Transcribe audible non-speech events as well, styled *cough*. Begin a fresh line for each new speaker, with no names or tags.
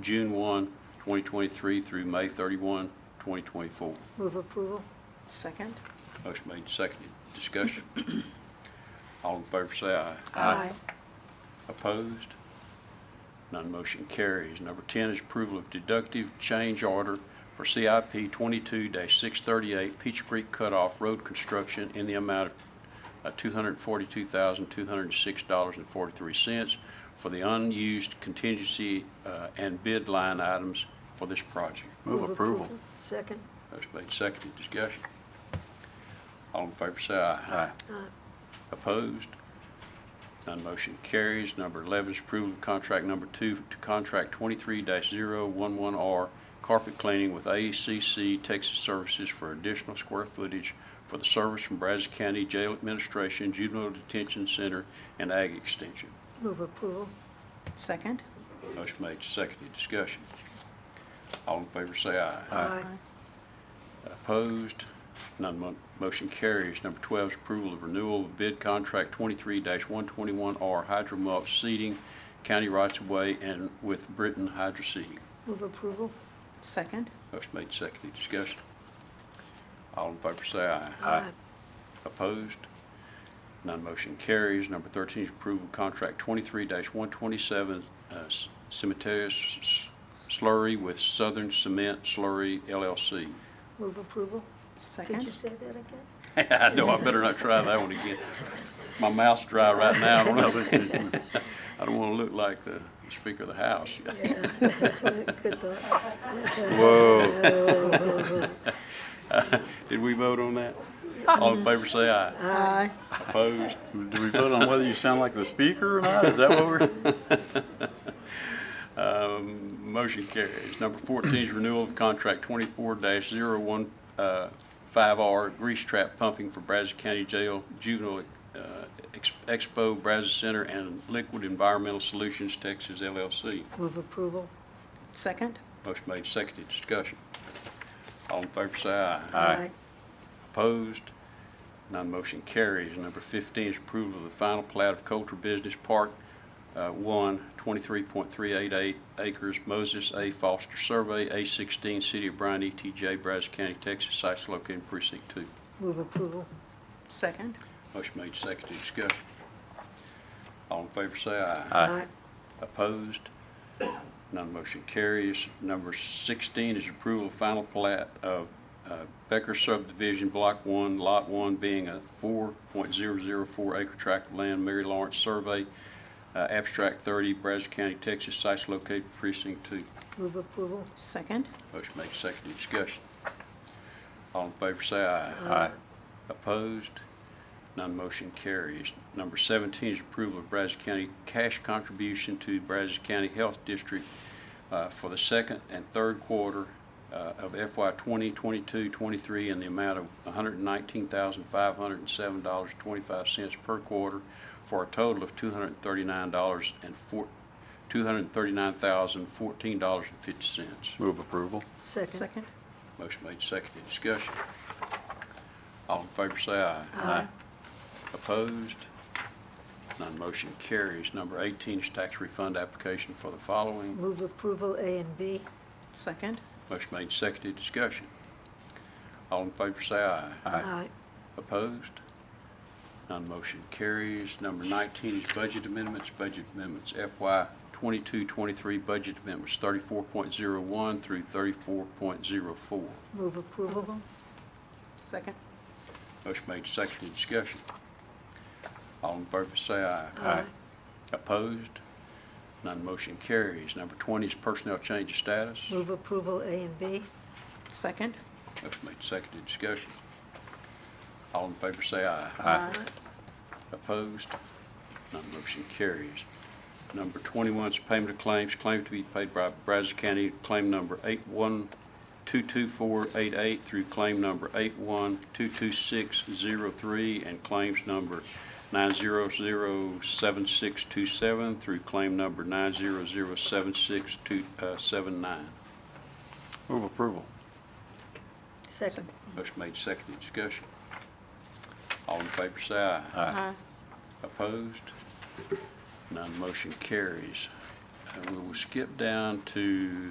June 1, 2023 through May 31, 2024.
Move approval?
Second?
Motion made, and seconded. Discussion. *clears throat* All in favor say aye. Opposed? None motion carries. Number 10 is approval of deductive change order for CIP 22-638 Peach Creek Cutoff Road Construction in the amount of uh, $242,206.43 for the unused contingency uh, and bid line items for this project.
Move approval. Second?
Motion made, seconded, discussion. All in favor say aye. Aye. Opposed? None motion carries. Number 11 is approval of contract number two to contract 23-011R carpet cleaning with ACC Texas Services for additional square footage for the service from Brazos County Jail Administration, Juvenile Detention Center, and Ag Extension.
Move approval?
Second?
Motion made, seconded, discussion. All in favor say aye. Opposed? None mo- motion carries. Number 12 is approval of renewal of bid contract 23-121R Hydro Mulch Seeding, County Rights of Way, and with Britain Hydro Seeding.
Move approval?
Second?
Motion made, seconded, discussion. All in favor say aye. Opposed? None motion carries. Number 13 is approval of contract 23-127 uh, s- cemetery s- s- slurry with Southern Cement Slurry LLC.
Move approval? Could
Second?
you say that again?
*laughs* I know, I better not try that one again. My mouth's dry right now, I don't know. *laughs* I don't want to look like the Speaker of the House.
Good thought.
Whoa.
*laughs*
Did we vote on that? All in favor, say aye.
Aye.
Opposed?
Do we vote on whether you sound like the speaker or not? Is that what we're?
*laughs* Um, Motion carries. Number 14 is renewal of contract 24-015R uh, grease trap pumping for Brazos County Jail Juvenile uh, Ex- Expo, Brazos Center, and Liquid Environmental Solutions Texas LLC.
Move approval?
Second?
Motion made, seconded, discussion. All in favor say aye.
Aye.
Opposed? None motion carries. Number 15 is approval of the final plat of Coulter Business Park, uh, 1, 23.388 acres, Moses A. Foster Survey, A16, City of Bryan, ETJ, Brazos County, Texas, sites located in precinct 2.
Move approval?
Second?
Motion made, seconded, discussion. All in favor say aye.
Aye.
Opposed? None motion carries. Number 16 is approval of final plat of uh, Becker subdivision, Block 1, Lot 1, being a 4.004 acre tract of land, Mary Lawrence Survey, uh, Abstract 30, Brazos County, Texas, sites located precinct 2.
Move approval?
Second?
Motion made, seconded, discussion. All in favor say aye.
Aye.
Opposed? None motion carries. Number 17 is approval of Brazos County cash contribution to Brazos County Health District uh, for the second and third quarter uh, of FY 2022-23 in the amount of $119,507.25 per quarter for a total of $239 and four- $239,014.50.
Move approval.
Second?
Second?
Motion made, seconded, discussion. All in favor say aye.
Aye.
Opposed? None motion carries. Number 18 is tax refund application for the following.
Move approval A and B?
Second?
Motion made, seconded, discussion. All in favor say aye.
Aye.
Opposed? None motion carries. Number 19 is budget amendments, budget amendments FY 22-23 budget amendments 34.01 through 34.04.
Move approval?
Second?
Motion made, seconded, discussion. All in favor say aye.
Aye.
Opposed? None motion carries. Number 20 is personnel change of status.
Move approval A and B?
Second?
Motion made, seconded, discussion. All in favor say aye.
Aye.
Opposed? None motion carries. Number 21 is payment of claims, claim to be paid by Brazos County, claim number 8122488 through claim number 8122603, and claims number 9007627 through claim number uh, 9007679.
Move approval.
Second?
Motion made, seconded, discussion. All in favor, say aye.
Aye.
Aye.
Opposed? None motion carries. Uh, And we will skip down to